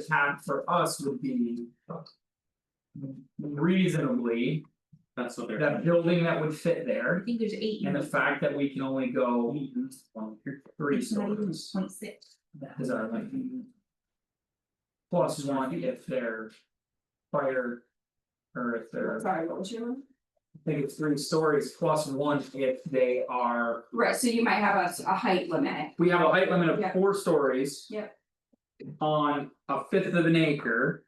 account for us would be. Reasonably, That's what they're. that building that would fit I there, think there's eight and the units, fact that we can only go three it's not even stories. point six. Is that like? Mm-hmm. Plus one if they're fire. Or if they're, I Sorry, what was your one? think it's three stories plus one if they are, Right, so you might have a s- a height limit, we have a height limit of Yeah. four stories. Yep. On a fifth of an acre.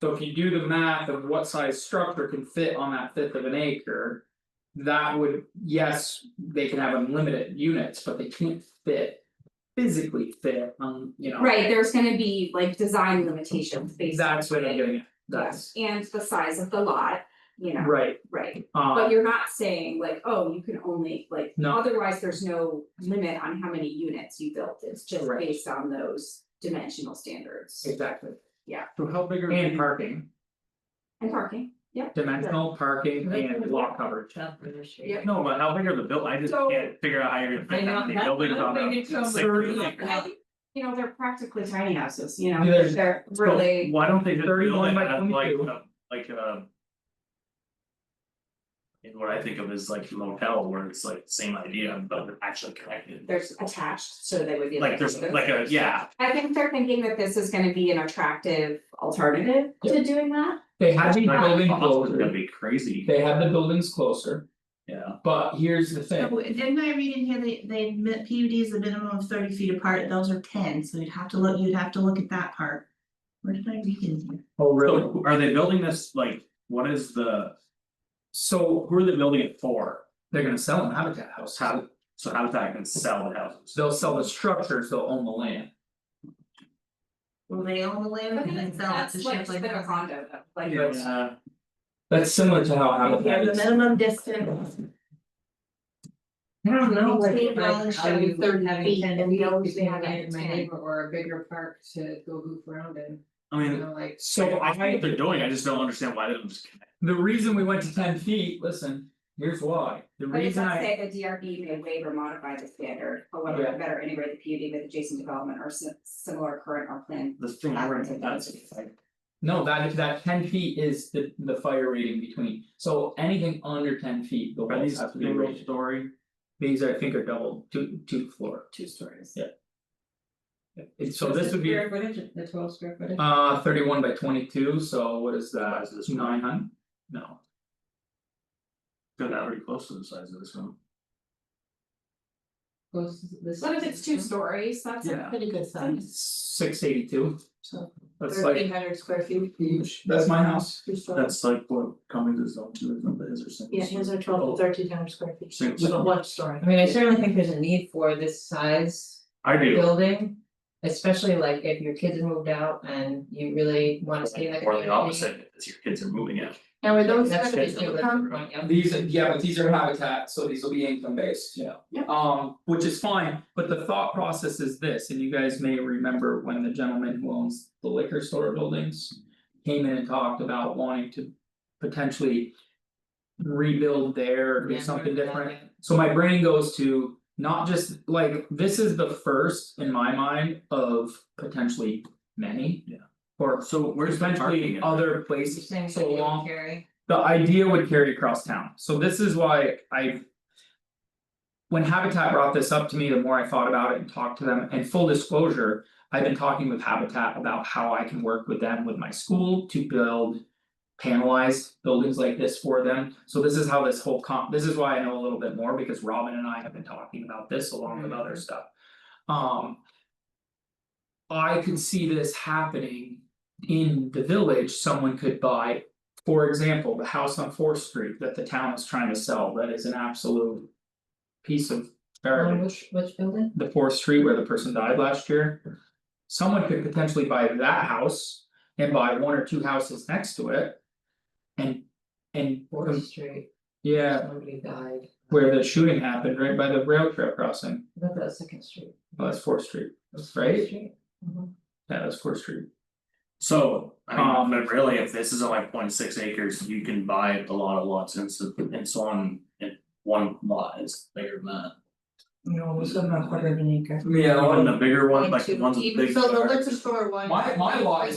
So if you do the math of what size structure can fit on that fifth of an acre. That would, yes, they can have unlimited units, but they can't fit. Physically fit on, you know. right, there's gonna be like design limitations based on. That's what I'm it. getting at, Yeah, that's And the size of the lot, you know, right, right, but um, you're not saying like, oh, you can only like, no, otherwise, there's no limit on how many units you built, it's just Right. based on those dimensional standards. exactly, So how big are and the parking, And parking, yeah, dimensional parking and lot coverage. Yeah. No, but how big are the build, I just So- can't figure out how you're gonna fit that many buildings on a six Thirty. acre. I- you know, they're practically tiny houses, you know, Yeah, there's- they're so- really, Why don't they just build 31 it by as like 22. a, like a. And what I think of is like motel where it's like same idea, but they're actually connected, they're attached, so they would be like. like there's like a, yeah, I think they're thinking that this is gonna be an attractive alternative to doing that. They had the Like, building oh, that's gonna closer, be crazy, they had the buildings closer, yeah. but here's the So thing, didn't I read in here they they admit PUDs a minimum of thirty feet apart, those are ten, so you'd have to look, you'd have to look at that part. Where did I read in here? oh really, So are they building this, like, what is the, so who are they building it for? they're gonna sell an habitat house, How, so how does that can sell the houses? they'll sell the structures, they'll own the land. Well, they own the land and then sell it to That's Shipley like a Housing. condo, though, like. Yeah. That's similar to how habitat Yeah, the is. minimum distance. I don't know, like, Eight dollars, like, how you seven, thirty having feet, ten and we feet always between have me it and my ten. neighbor or a bigger park to go goof around in, I you mean, know, like. So I think what I, they're doing, I just don't understand why they don't just connect. the reason we went to ten feet, listen, here's why, the But it reason does I, say the DRB may waive or modify the standard, however, Yeah. better integrate the PUD with adjacent development or si- similar current or planned. The thing I read, that's like, no, that that ten feet is the the fire rating between. So anything under ten feet, the are walls these have to be single raised, story, these I think are double, two two floor. Two stories. It- so this would be Square footage, the twelve square footage, uh thirty one by twenty two, so what is Why that, is this nine hundred? No, they're not very close to the size of this one. goes to this. What if it's two stories, that's a a Yeah. pretty good size. six eighty two, So that's thirteen like hundred square feet, huge, that's my house. two stories. That's like what Cummings is up to, is not his or something. are Oh. thirteen hundred square feet. Six. With one story. I mean, I certainly think there's a need for this size I do, building. Especially like if your kids have moved out and you really wanna stay in the or community. the opposite, if your kids are moving out. Now, are those That's gonna be just a income, living room, yeah. These, are- yeah, but these are habitat, so these will be income based, you know. Yeah. Um, which is fine, but the thought process is this, and you guys may remember when the gentleman who owns the liquor store buildings. Came in and talked about wanting to potentially. Rebuild there, or do Yeah, something yeah, different, yeah. so my brain goes to not just like, this is the first in my mind of potentially many. Yeah. Or So where's the parking potentially at? other You're places, saying so that you would along carry. the idea would carry across town, so this is why I. When Habitat brought this up to me, the more I thought about it and talked to them, and full disclosure, I've been talking with Habitat about how I can work with them with my school to build. Panelized buildings like this for them, so this is how this whole comp, this is why I know a little bit more, because Robin and I have been talking about this along with other stuff. Um. I could see this happening in the village, someone could buy for example, the house on Fourth Street that the town is trying to sell, that is an absolute. Piece of On garbage, which which building? the Fourth Street where the person died last year. Someone could potentially buy that house and buy one or two houses next to it. And and Fourth Street, Um, yeah, somebody died, where the shooting happened, right by the rail trail crossing, not that Second Street. Well, that's Fourth Street, that's Fourth right, Street? Mhm. yeah, that's Fourth Street. So, I Um, mean, but really, if this is only point six acres, you can buy a lot of lots and so and so on. And one lot is bigger than that. you know, was about a quarter of an acre. Yeah. Even the bigger one, And like the two- ones with even- big. So the yards. liquor store one. My- my lot is